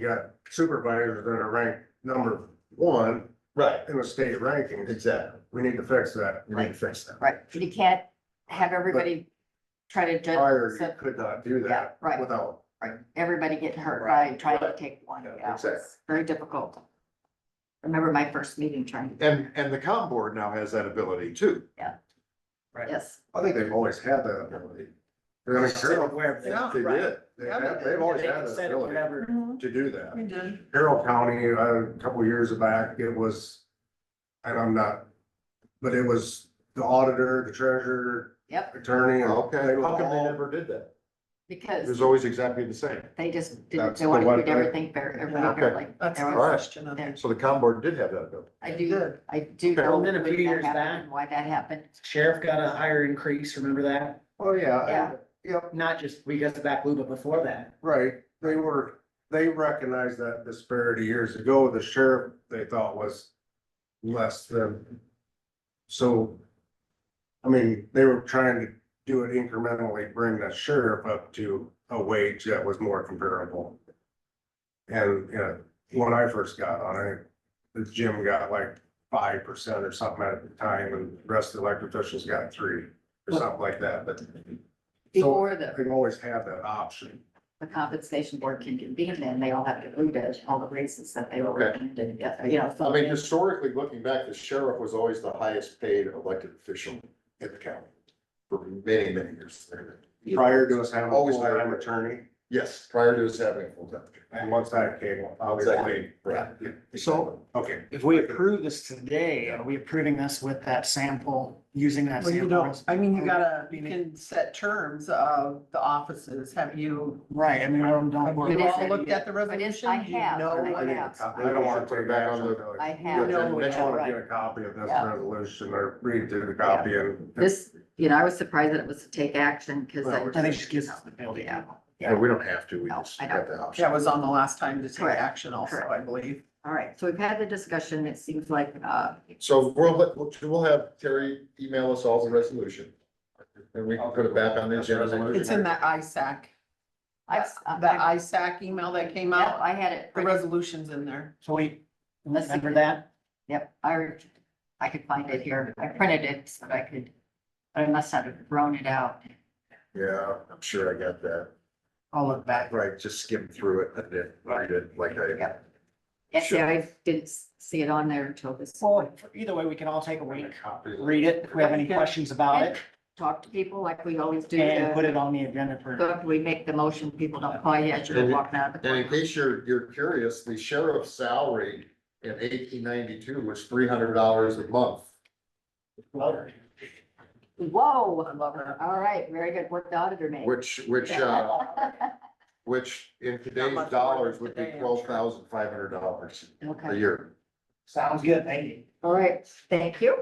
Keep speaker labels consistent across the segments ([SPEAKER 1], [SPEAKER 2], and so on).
[SPEAKER 1] You got supervisors that are ranked number one
[SPEAKER 2] Right,
[SPEAKER 1] in the state rankings.
[SPEAKER 2] exactly.
[SPEAKER 1] We need to fix that.
[SPEAKER 2] We need to fix that.
[SPEAKER 3] Right, you can't have everybody try to
[SPEAKER 1] Prior,
[SPEAKER 3] judge,
[SPEAKER 1] you
[SPEAKER 3] so-
[SPEAKER 1] could not do
[SPEAKER 3] yeah,
[SPEAKER 1] that
[SPEAKER 3] right,
[SPEAKER 1] without,
[SPEAKER 3] right, everybody getting hurt by trying to
[SPEAKER 2] right.
[SPEAKER 3] take one,
[SPEAKER 2] Yeah,
[SPEAKER 3] yeah,
[SPEAKER 2] exactly.
[SPEAKER 3] it's very difficult. Remember my first meeting trying to,
[SPEAKER 2] And, and the com board now has that ability too.
[SPEAKER 3] yes,
[SPEAKER 1] I think they've always had that ability. They're gonna Carroll,
[SPEAKER 2] Yeah, they did.
[SPEAKER 1] They have, they've always had that ability
[SPEAKER 2] To do that.
[SPEAKER 1] Carroll County, uh, a couple years back, it was, and I'm not, but it was the auditor, the treasurer,
[SPEAKER 3] yep,
[SPEAKER 1] attorney. and
[SPEAKER 2] Okay,
[SPEAKER 1] they were
[SPEAKER 2] how come they
[SPEAKER 1] all-
[SPEAKER 2] never did that?
[SPEAKER 3] because.
[SPEAKER 2] It was always exactly the same.
[SPEAKER 3] They just didn't,
[SPEAKER 2] That's
[SPEAKER 3] they
[SPEAKER 2] the
[SPEAKER 3] wanted to
[SPEAKER 2] one
[SPEAKER 3] do
[SPEAKER 2] thing.
[SPEAKER 3] everything fair,
[SPEAKER 2] Yeah.
[SPEAKER 3] everyone
[SPEAKER 2] Okay.
[SPEAKER 3] fairly.
[SPEAKER 4] That's
[SPEAKER 3] There
[SPEAKER 4] the
[SPEAKER 3] was-
[SPEAKER 2] Alright.
[SPEAKER 4] question of
[SPEAKER 3] there-
[SPEAKER 4] it.
[SPEAKER 2] So the com board did have that ability.
[SPEAKER 3] I
[SPEAKER 4] They
[SPEAKER 3] do,
[SPEAKER 4] did.
[SPEAKER 3] I do
[SPEAKER 2] Okay.
[SPEAKER 3] know
[SPEAKER 4] And then a
[SPEAKER 3] when
[SPEAKER 4] few
[SPEAKER 3] that
[SPEAKER 4] years
[SPEAKER 3] happened
[SPEAKER 4] back-
[SPEAKER 3] and why that happened.
[SPEAKER 4] Sheriff got a higher increase, remember that?
[SPEAKER 1] Oh, yeah.
[SPEAKER 3] Yeah.
[SPEAKER 1] Yep,
[SPEAKER 4] Not just, we got the back blue, but before that.
[SPEAKER 1] right. They were, they recognized that disparity years ago. The sheriff, they thought was less than. So, I mean, they were trying to do it incrementally, bring the sheriff up to a wage that was more comparable. And, you know, when I first got on it, the gym got like five percent or something at the time and the rest of the elected officials got three or something like that, but. So
[SPEAKER 3] Before the,
[SPEAKER 1] they always have that option.
[SPEAKER 3] the compensation board can convene, then they all have to vote it, all the races that they were
[SPEAKER 2] Okay.
[SPEAKER 3] recommended, yeah, you know,
[SPEAKER 2] I
[SPEAKER 3] so.
[SPEAKER 2] mean, historically, looking back, the sheriff was always the highest paid elected official in the county for many, many years.
[SPEAKER 1] prior to us having a
[SPEAKER 2] Always
[SPEAKER 1] full-time
[SPEAKER 2] hired.
[SPEAKER 1] attorney,
[SPEAKER 2] Yes, prior to us having a full time.
[SPEAKER 1] and once that came, obviously.
[SPEAKER 2] Exactly, right.
[SPEAKER 4] So-
[SPEAKER 1] Okay,
[SPEAKER 4] If we approve this today, are we approving this with that sample, using that
[SPEAKER 5] Well, you
[SPEAKER 4] sample?
[SPEAKER 5] don't, I mean, you gotta, you can set terms of the offices, have you,
[SPEAKER 4] Right, I mean, I don't, don't.
[SPEAKER 5] have
[SPEAKER 4] worry
[SPEAKER 5] you
[SPEAKER 3] Yes,
[SPEAKER 5] all looked at the
[SPEAKER 3] But it's,
[SPEAKER 5] resolution?
[SPEAKER 3] I
[SPEAKER 5] Do you
[SPEAKER 3] have,
[SPEAKER 5] know
[SPEAKER 3] I
[SPEAKER 5] what-
[SPEAKER 3] have,
[SPEAKER 1] I don't want to take back on the.
[SPEAKER 3] I
[SPEAKER 2] Yeah,
[SPEAKER 3] have.
[SPEAKER 2] then
[SPEAKER 1] I
[SPEAKER 2] next
[SPEAKER 1] just
[SPEAKER 2] one,
[SPEAKER 1] want to get a copy of this
[SPEAKER 3] Yeah.
[SPEAKER 1] resolution or read through the copy and.
[SPEAKER 3] This, you know, I was surprised that it was to take action, because I.
[SPEAKER 1] Well, I
[SPEAKER 4] I think she gives us the ability.
[SPEAKER 3] Yeah,
[SPEAKER 2] And we don't have to, we
[SPEAKER 3] No,
[SPEAKER 2] just
[SPEAKER 3] I
[SPEAKER 2] have the option.
[SPEAKER 5] That was on the last time to take
[SPEAKER 3] Correct,
[SPEAKER 5] action also,
[SPEAKER 3] correct.
[SPEAKER 5] I believe.
[SPEAKER 3] all right, so we've had the discussion, it seems like, uh,
[SPEAKER 2] So we'll, let- we'll- we'll have Terry email us all the resolution. And we can put it back on the agenda.
[SPEAKER 5] It's in that ISAC,
[SPEAKER 3] I,
[SPEAKER 5] that ISAC email that came
[SPEAKER 3] yeah,
[SPEAKER 5] out,
[SPEAKER 3] I had it.
[SPEAKER 5] the
[SPEAKER 3] printed.
[SPEAKER 5] resolution's in there.
[SPEAKER 4] So we,
[SPEAKER 3] Let's see.
[SPEAKER 4] remember that?
[SPEAKER 3] Yep, I, I could find it here. I printed it so that I could, I must have thrown it out.
[SPEAKER 2] Yeah, I'm sure I got that.
[SPEAKER 4] I'll look back.
[SPEAKER 2] Right, just skim through it and then read it like I.
[SPEAKER 3] Yep. Actually, I didn't see it on there until this.
[SPEAKER 4] Well, either way, we can all take a week,
[SPEAKER 1] Copy.
[SPEAKER 4] read it, if we have any questions about it,
[SPEAKER 3] Talk to people like we always do.
[SPEAKER 4] and put
[SPEAKER 3] to-
[SPEAKER 4] it on the agenda for.
[SPEAKER 3] But we make the motion, people don't call you as you're walking out of the.
[SPEAKER 2] And in
[SPEAKER 3] courtroom.
[SPEAKER 2] case you're, you're curious, the sheriff's salary in eighteen ninety-two was three hundred dollars a month.
[SPEAKER 3] Whoa,
[SPEAKER 5] I love it.
[SPEAKER 3] all right, very good work the auditor made.
[SPEAKER 2] Which, which, uh, which in today's
[SPEAKER 5] much more
[SPEAKER 2] dollars
[SPEAKER 5] than
[SPEAKER 2] would be
[SPEAKER 5] today, I'm sure.
[SPEAKER 2] twelve thousand five hundred dollars a
[SPEAKER 3] Okay,
[SPEAKER 2] year.
[SPEAKER 4] Sounds good, thank you.
[SPEAKER 3] all right, thank you.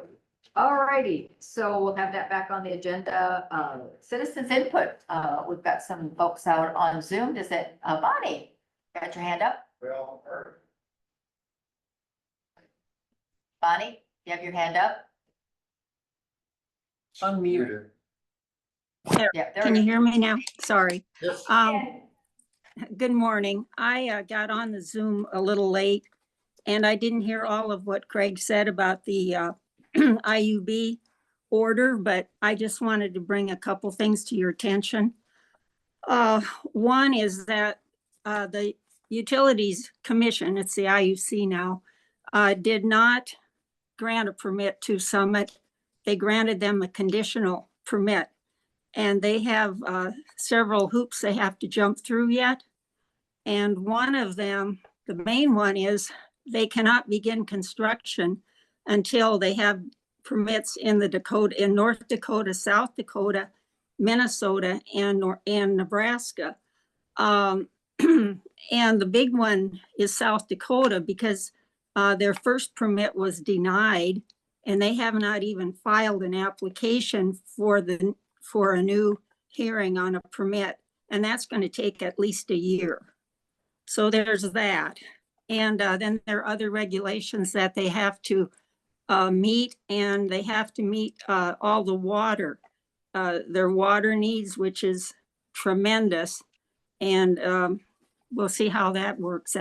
[SPEAKER 3] All righty, so we'll have that back on the agenda. Uh, citizens input, uh, we've got some folks out on Zoom. Is it, uh, Bonnie? Got your hand up?
[SPEAKER 1] Well, or-
[SPEAKER 3] Bonnie, you have your hand up?
[SPEAKER 5] Unmute.
[SPEAKER 3] Yep. there
[SPEAKER 6] Can
[SPEAKER 3] it
[SPEAKER 6] you
[SPEAKER 3] is.
[SPEAKER 6] hear me now? Sorry.
[SPEAKER 2] Yes.
[SPEAKER 6] Um, good morning. I uh, got on the Zoom a little late and I didn't hear all of what Craig said about the uh, IUB order, but I just wanted to bring a couple things to your attention. Uh, one is that uh, the Utilities Commission, it's the IUC now, uh, did not grant a permit to Summit. They granted them a conditional permit. And they have uh, several hoops they have to jump through yet. And one of them, the main one is they cannot begin construction until they have permits in the Dakota, in North Dakota, South Dakota, Minnesota, and, Nor- and Nebraska. Um, and the big one is South Dakota because uh, their first permit was denied and they have not even filed an application for the, for a new hearing on a permit, and that's going to take at least a year. So there's that. And uh, then there are other regulations that they have to uh, meet, and they have to meet uh, all the water, uh, their water needs, which is tremendous. And um, we'll see how that works